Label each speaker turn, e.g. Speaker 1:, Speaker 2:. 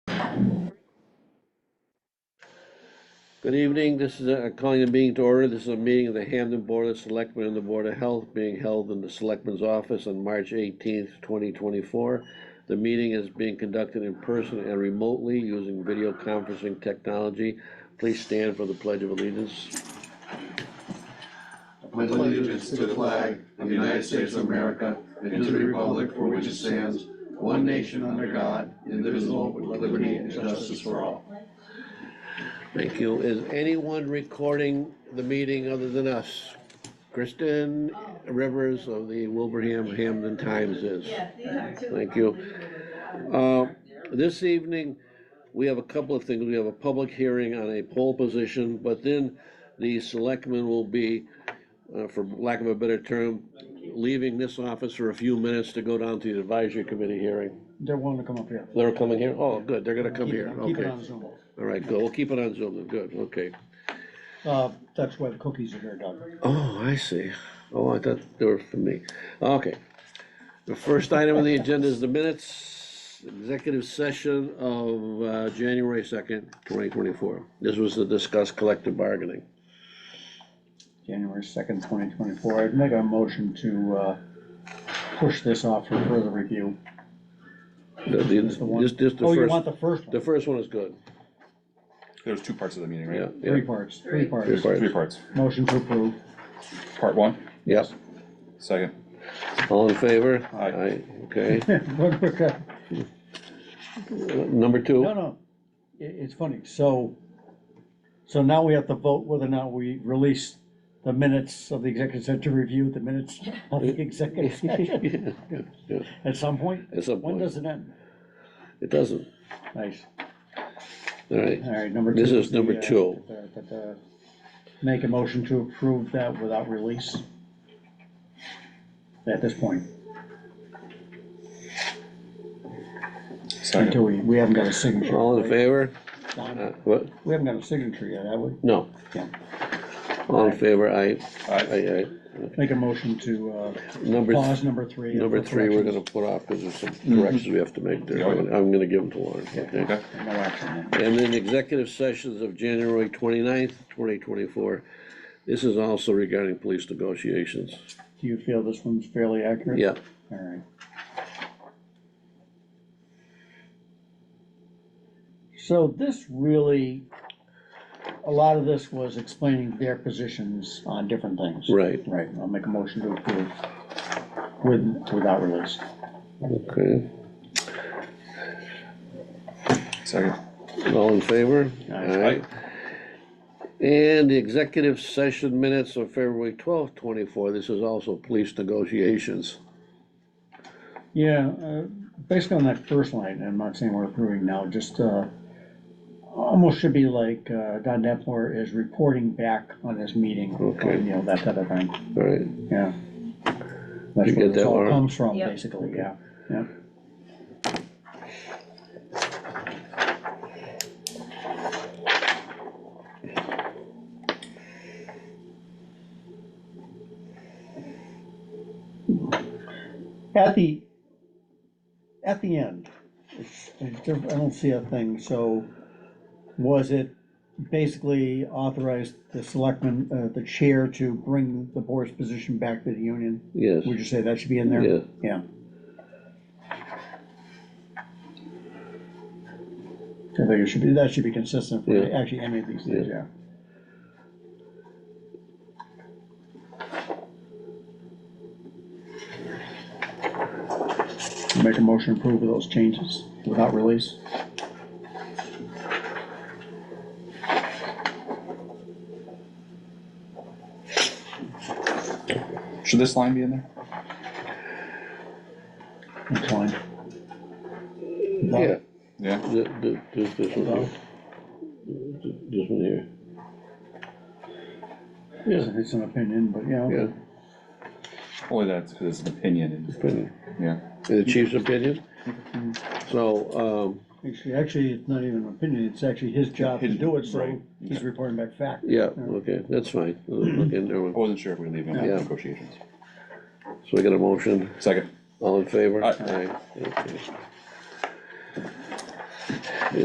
Speaker 1: Good evening, this is, a- calling the meeting to order, this is a meeting of the Hamden Board of Selectmen and the Board of Health being held in the Selectmen's Office on March eighteenth, twenty twenty-four. The meeting is being conducted in person and remotely using video conferencing technology. Please stand for the Pledge of Allegiance.
Speaker 2: pledge allegiance to the flag of the United States of America and to the republic for which it stands, one nation under God, indivisible, with liberty and justice for all.
Speaker 1: Thank you. Is anyone recording the meeting other than us? Kristen Rivers of the Wilbraham Hamden Times is. Thank you. Uh, This evening, we have a couple of things. We have a public hearing on a poll position, but then the selectmen will be, uh, for lack of a better term, leaving this office for a few minutes to go down to the advisory committee hearing.
Speaker 3: They're willing to come up here.
Speaker 1: They're coming here? Oh, good, they're gonna come here,
Speaker 3: Keep it- Keep it
Speaker 1: okay.
Speaker 3: on Zoom.
Speaker 1: All right, good, we'll keep it on Zoom, then. good, okay.
Speaker 3: Uh, that's why the cookies are here, Doug.
Speaker 1: Oh, I see. Oh, I thought they were for me. Okay. The first item on the agenda is the minutes, executive session of uh, January second, twenty twenty-four. This was to discuss collective bargaining.
Speaker 3: January second, twenty twenty-four. I'd make a motion to, uh, push this off for further review.
Speaker 1: The-
Speaker 3: the
Speaker 1: the-
Speaker 3: one-
Speaker 1: Just, just
Speaker 3: Oh,
Speaker 1: the
Speaker 3: you want
Speaker 1: first,
Speaker 3: the first
Speaker 1: the
Speaker 3: one?
Speaker 1: first one is good.
Speaker 4: There's two parts of the meeting,
Speaker 1: Yeah,
Speaker 4: right?
Speaker 1: yeah.
Speaker 3: Three parts, three
Speaker 1: Three
Speaker 3: parts.
Speaker 1: parts.
Speaker 4: Three parts.
Speaker 3: Motion to approve.
Speaker 4: Part one,
Speaker 1: Yep,
Speaker 4: second.
Speaker 1: all in favor?
Speaker 4: Aye.
Speaker 1: Okay.
Speaker 3: Look, look, uh,
Speaker 1: Number two?
Speaker 3: No, no, i it's funny, so, so now we have to vote whether or not we release the minutes of the executive session to review the minutes of the executive session
Speaker 1: Yeah, yeah.
Speaker 3: at some point?
Speaker 1: At some
Speaker 3: When
Speaker 1: point.
Speaker 3: does it end?
Speaker 1: It doesn't.
Speaker 3: Nice.
Speaker 1: All right.
Speaker 3: All right, number two.
Speaker 1: This is
Speaker 3: the,
Speaker 1: number
Speaker 3: uh,
Speaker 1: two.
Speaker 3: the- the- the- Make a motion to approve that without release. At this point,
Speaker 4: Second.
Speaker 3: until we, we haven't got a signature.
Speaker 1: All in
Speaker 3: right?
Speaker 1: favor?
Speaker 3: Don,
Speaker 1: Uh, What?
Speaker 3: We haven't got a signature yet, have we?
Speaker 1: No.
Speaker 3: Yeah.
Speaker 1: All in favor? Aye.
Speaker 4: Aye.
Speaker 1: Aye, aye.
Speaker 3: Make a motion to, uh,
Speaker 1: Number, th-
Speaker 3: pause number three.
Speaker 1: number
Speaker 3: for
Speaker 1: three, we're gonna
Speaker 3: corrections.
Speaker 1: put off, because there's some corrections we have to make there, I'm gonna- I'm gonna give them to Lauren, okay?
Speaker 4: Okay.
Speaker 3: No action then.
Speaker 1: And then executive sessions of January 29th, twenty twenty-four, this is also regarding police negotiations,
Speaker 3: Do you feel this one's fairly accurate?
Speaker 1: yeah,
Speaker 3: All right. So this really, a lot of this was explaining their positions on different things.
Speaker 1: right,
Speaker 3: Right, I'll make a motion to approve with, without release.
Speaker 1: okay,
Speaker 4: Second.
Speaker 1: all in favor?
Speaker 3: Aye.
Speaker 1: And the executive session minutes of February twelfth, twenty-four, this is also police negotiations,
Speaker 3: Yeah, uh, basically on that first line, I'm not saying we're approving now, just, uh, almost should be like, uh, Don Depler is reporting back on this meeting,
Speaker 1: Okay.
Speaker 3: you know, that type of thing.
Speaker 1: all right,
Speaker 3: Yeah. That's
Speaker 1: You
Speaker 3: where
Speaker 1: get
Speaker 3: this
Speaker 1: that,
Speaker 3: all
Speaker 1: Laura?
Speaker 3: comes from,
Speaker 5: Yep.
Speaker 3: basically, yeah, yeah. At the, at the end, it's- it's diff- I don't see a thing, so was it basically authorized the selectman, uh, the chair to bring the board's position back to the union?
Speaker 1: yes,
Speaker 3: Would you say that should be in there?
Speaker 1: Yeah.
Speaker 3: Yeah. I think it should be, that should be consistent for
Speaker 1: Yeah.
Speaker 3: actually any of these things, yeah. Make a motion to approve of those changes without release.
Speaker 4: Should this line be in there?
Speaker 3: That's fine.
Speaker 1: yeah,
Speaker 4: Yeah.
Speaker 1: th- th- this, this one here. Th- this one here. Yeah,
Speaker 3: It's an opinion, but yeah,
Speaker 1: yeah,
Speaker 3: okay.
Speaker 4: Only that's because it's an opinion
Speaker 1: opinion,
Speaker 4: and, yeah.
Speaker 1: in the chief's opinion. So, um,
Speaker 3: Actually, actually, it's not even an opinion, it's actually his job to
Speaker 4: His-
Speaker 3: do it, so
Speaker 4: right.
Speaker 3: he's reporting back fact.
Speaker 1: yeah, okay, that's fine, look in there,
Speaker 4: I wasn't sure if we were leaving out
Speaker 1: Yeah.
Speaker 4: negotiations.
Speaker 1: so we got a motion,
Speaker 4: Second.
Speaker 1: all in favor?
Speaker 4: Aye.
Speaker 1: Aye. Okay.